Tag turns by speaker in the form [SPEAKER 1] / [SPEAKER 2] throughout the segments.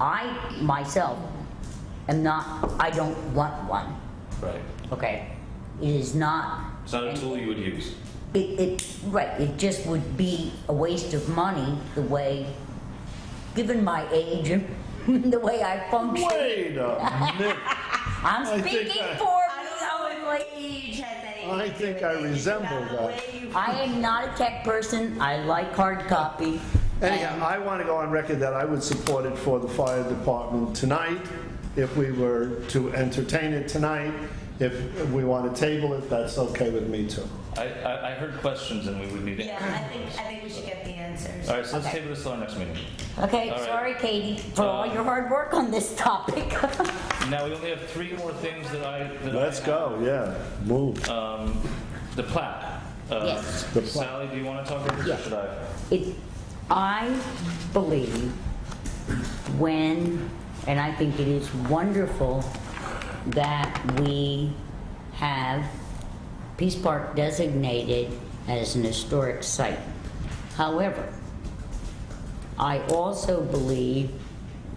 [SPEAKER 1] I myself am not, I don't want one,
[SPEAKER 2] Right.
[SPEAKER 1] okay? It is not.
[SPEAKER 2] It's not a tool you would use.
[SPEAKER 1] It, it, right, it just would be a waste of money the way, given my age and the way I function.
[SPEAKER 3] Wait a minute.
[SPEAKER 1] I'm
[SPEAKER 3] I think
[SPEAKER 1] speaking
[SPEAKER 3] I-
[SPEAKER 1] for
[SPEAKER 4] I
[SPEAKER 1] me,
[SPEAKER 4] don't
[SPEAKER 1] I'm
[SPEAKER 4] know if
[SPEAKER 1] like-
[SPEAKER 4] age has anything
[SPEAKER 3] I
[SPEAKER 4] to do
[SPEAKER 3] think
[SPEAKER 4] with
[SPEAKER 3] I
[SPEAKER 4] it. It's
[SPEAKER 3] resemble
[SPEAKER 4] about the
[SPEAKER 3] that.
[SPEAKER 4] way you-
[SPEAKER 1] I am not a tech person, I like hard copy.
[SPEAKER 3] Anyhow, I want to go on record that I would support it for the fire department tonight, if we were to entertain it tonight. If we want to table it, that's okay with me too.
[SPEAKER 2] I, I, I heard questions and we would need to.
[SPEAKER 4] Yeah, I think, I think we should get the answers.
[SPEAKER 2] All right, so let's
[SPEAKER 1] Okay.
[SPEAKER 2] table this till our next meeting.
[SPEAKER 1] Okay,
[SPEAKER 2] All right.
[SPEAKER 1] sorry Katie, for all
[SPEAKER 2] Uh,
[SPEAKER 1] your hard work on this topic.
[SPEAKER 2] Now, we only have three more things that I. that I
[SPEAKER 3] Let's
[SPEAKER 2] have.
[SPEAKER 3] go, yeah, move.
[SPEAKER 2] Um, the plaque. Uh,
[SPEAKER 1] Yes.
[SPEAKER 3] The plaque.
[SPEAKER 2] Sally, do you want to talk about this or should I?
[SPEAKER 1] It, I believe when, and I think it is wonderful that we have Peace Park designated as an historic site. However, I also believe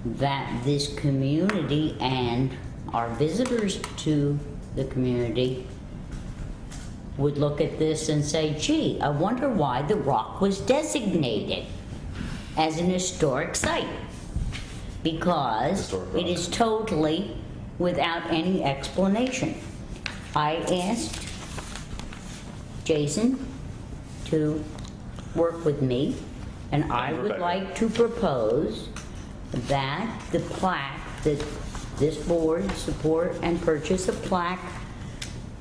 [SPEAKER 1] that this community and our visitors to the community would look at this and say, gee, I wonder why the rock was designated as an historic site. Because
[SPEAKER 2] Historic
[SPEAKER 1] it
[SPEAKER 2] rock.
[SPEAKER 1] is totally without any explanation. I asked Jason to work with me, and I
[SPEAKER 2] And
[SPEAKER 1] would
[SPEAKER 2] Rebecca.
[SPEAKER 1] like to propose that the plaque, that this board support and purchase a plaque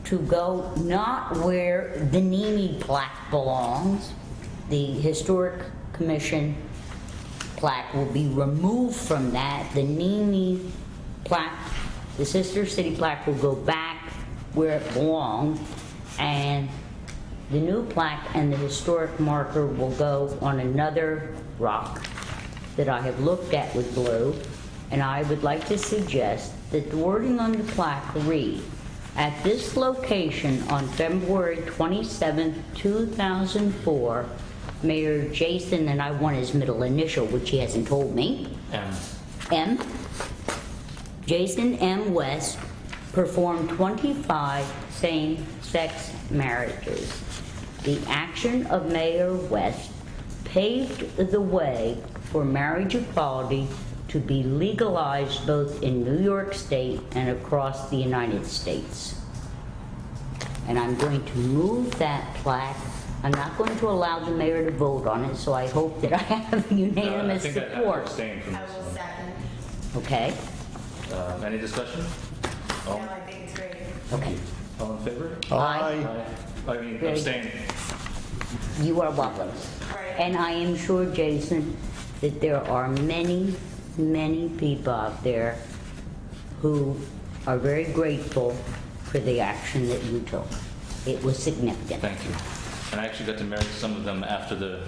[SPEAKER 1] to go not where the Nimi plaque belongs, the Historic Commission plaque will be removed from that, the Nimi plaque, the Sister City plaque will go back where it belonged, and the new plaque and the historic marker will go on another rock that I have looked at with blue, and I would like to suggest that the wording on the plaque read, "At this location on February 27, 2004, Mayor Jason," and I want his middle initial, which he hasn't told me,
[SPEAKER 2] M.
[SPEAKER 1] M. Jason M. West performed 25 same-sex marriages. The action of Mayor West paved the way for marriage equality to be legalized both in New York State and across the United States and I'm going to move that plaque. I'm not going to allow the mayor to vote on it, so I hope that I have
[SPEAKER 2] uh, I
[SPEAKER 1] unanimous
[SPEAKER 2] think I have to
[SPEAKER 1] support.
[SPEAKER 2] abstain from
[SPEAKER 4] I will
[SPEAKER 2] this.
[SPEAKER 4] second.
[SPEAKER 1] Okay,
[SPEAKER 2] Um, Any discussion?
[SPEAKER 4] No,
[SPEAKER 2] All,
[SPEAKER 4] I think it's great.
[SPEAKER 1] okay.
[SPEAKER 2] all in favor?
[SPEAKER 1] Aye.
[SPEAKER 2] Aye. I mean,
[SPEAKER 1] Very-
[SPEAKER 2] abstain.
[SPEAKER 1] You are welcome.
[SPEAKER 4] Right.
[SPEAKER 1] And I am sure, Jason, that there are many, many people out there who are very grateful for the action that you took. It was significant.
[SPEAKER 2] Thank you. And I actually got to marry some of them after the,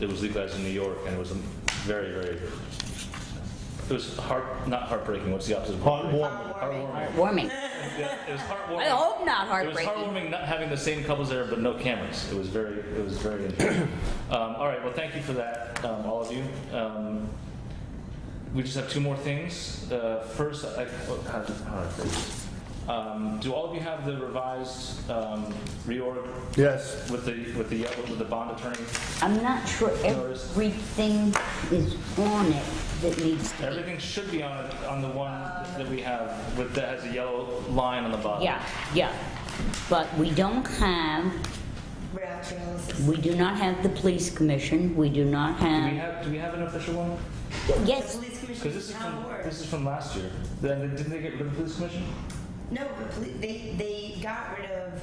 [SPEAKER 2] it was legalized in New York, and it was a very, very, it was heart, not heartbreaking, what's the opposite of heartbreaking?
[SPEAKER 3] Heartwarming.
[SPEAKER 2] Heartwarming.
[SPEAKER 1] Warming.
[SPEAKER 2] Yeah, It was heartwarming.
[SPEAKER 1] I hope not
[SPEAKER 2] It was
[SPEAKER 1] heartbreaking.
[SPEAKER 2] heartwarming not having the same couples there, but no cameras. It was very, it was very interesting. um, all right, well, thank you for that, um, all of you. Um, we just have two more things. Uh, first, I, oh, how, do- how do I phrase this? Um, do all of you have the revised um, reorg
[SPEAKER 3] Yes,
[SPEAKER 2] with the with the yellow with the bond attorney?
[SPEAKER 1] I'm not sure
[SPEAKER 2] Notice.
[SPEAKER 1] everything is on it that needs to be.
[SPEAKER 2] Everything should be on on the one that we have with that has a yellow line on the bottom.
[SPEAKER 1] Yeah, yeah. But we don't have,
[SPEAKER 4] Rail trails.
[SPEAKER 1] we do not have the police commission, we do not
[SPEAKER 2] Do we
[SPEAKER 1] have,
[SPEAKER 2] have do we have an official one?
[SPEAKER 4] The
[SPEAKER 1] yes,
[SPEAKER 4] police
[SPEAKER 2] Because
[SPEAKER 4] commission
[SPEAKER 2] this
[SPEAKER 4] is
[SPEAKER 2] is
[SPEAKER 4] town
[SPEAKER 2] from,
[SPEAKER 4] board.
[SPEAKER 2] this is from last year. Then, didn't they get rid of police commission?
[SPEAKER 4] No, the poli- they, they got rid of,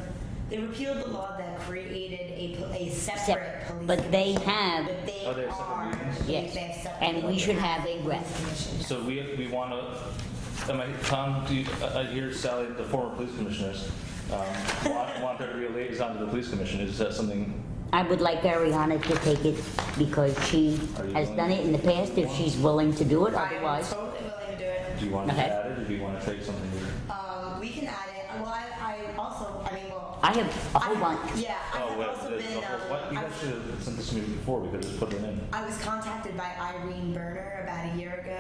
[SPEAKER 4] they repealed the law that created a, pol- a separate
[SPEAKER 1] Sep-
[SPEAKER 4] police.
[SPEAKER 1] but they
[SPEAKER 4] commission.
[SPEAKER 1] have-
[SPEAKER 4] But they
[SPEAKER 2] Oh, they have separate
[SPEAKER 4] are,
[SPEAKER 2] unions?
[SPEAKER 1] Yes.
[SPEAKER 4] they have separate
[SPEAKER 1] And we should have a
[SPEAKER 4] police
[SPEAKER 1] rep.
[SPEAKER 4] commission.
[SPEAKER 2] So we, we want to, am I, Tom, do you, I I hear Sally, the former police commissioners, um, want, want there to be a liaison to the police commission. Is that something?
[SPEAKER 1] I would like Ariana to take it because she
[SPEAKER 2] Are you
[SPEAKER 1] has
[SPEAKER 2] willing
[SPEAKER 1] done it in the past if she's willing to do it, otherwise.
[SPEAKER 4] I'm totally willing to do it.
[SPEAKER 2] Do you want to
[SPEAKER 1] Okay.
[SPEAKER 2] add it or do you want to take something? here?
[SPEAKER 4] Um, we can add it. Well, I, I also, I mean, well.
[SPEAKER 1] I have a whole bunch.
[SPEAKER 4] Yeah, I
[SPEAKER 2] Oh,
[SPEAKER 4] have
[SPEAKER 2] wait,
[SPEAKER 4] also
[SPEAKER 2] there's
[SPEAKER 4] been,
[SPEAKER 2] a whole- what?
[SPEAKER 4] um,
[SPEAKER 2] You
[SPEAKER 4] I
[SPEAKER 2] guys
[SPEAKER 4] was-
[SPEAKER 2] should have sent this to me before. We could have just put it in.
[SPEAKER 4] I was contacted by Irene Berner about a year ago